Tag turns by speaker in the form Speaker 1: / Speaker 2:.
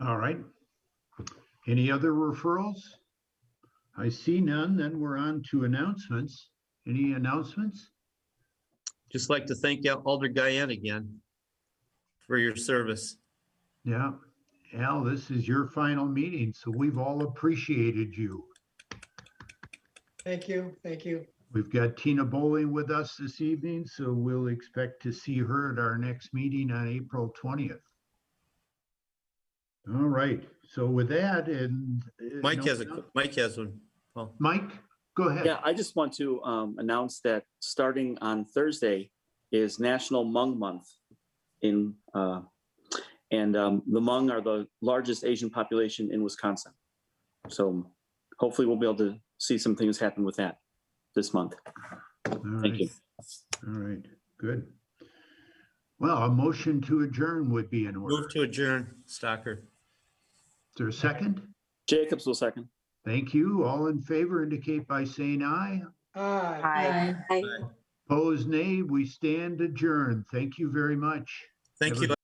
Speaker 1: All right. Any other referrals? I see none, then we're on to announcements. Any announcements?
Speaker 2: Just like to thank Al- Alder Guyan again for your service.
Speaker 1: Yeah, Al, this is your final meeting, so we've all appreciated you.
Speaker 3: Thank you, thank you.
Speaker 1: We've got Tina Bowling with us this evening, so we'll expect to see her at our next meeting on April twentieth. All right, so with that and. uh,
Speaker 2: Mike
Speaker 1: no-
Speaker 2: has a, Mike has one. Paul.
Speaker 1: Mike, go ahead.
Speaker 4: Yeah, I just want to um, announce that starting on Thursday is National Hmong Month in, uh, and um, the Hmong are the largest Asian population in Wisconsin. So hopefully we'll be able to see some things happen with that this month.
Speaker 1: All
Speaker 4: Thank
Speaker 1: right.
Speaker 4: you.
Speaker 1: All right, good. Well, a motion to adjourn would be in order.
Speaker 2: Move to adjourn, Stocker.
Speaker 1: Is there a second?
Speaker 4: Jacobs will second.
Speaker 1: Thank you. All in favor indicate by saying aye.
Speaker 3: Aye.
Speaker 5: Aye.
Speaker 1: Opposed, nay. We stand adjourned. Thank you very much.
Speaker 2: Thank you.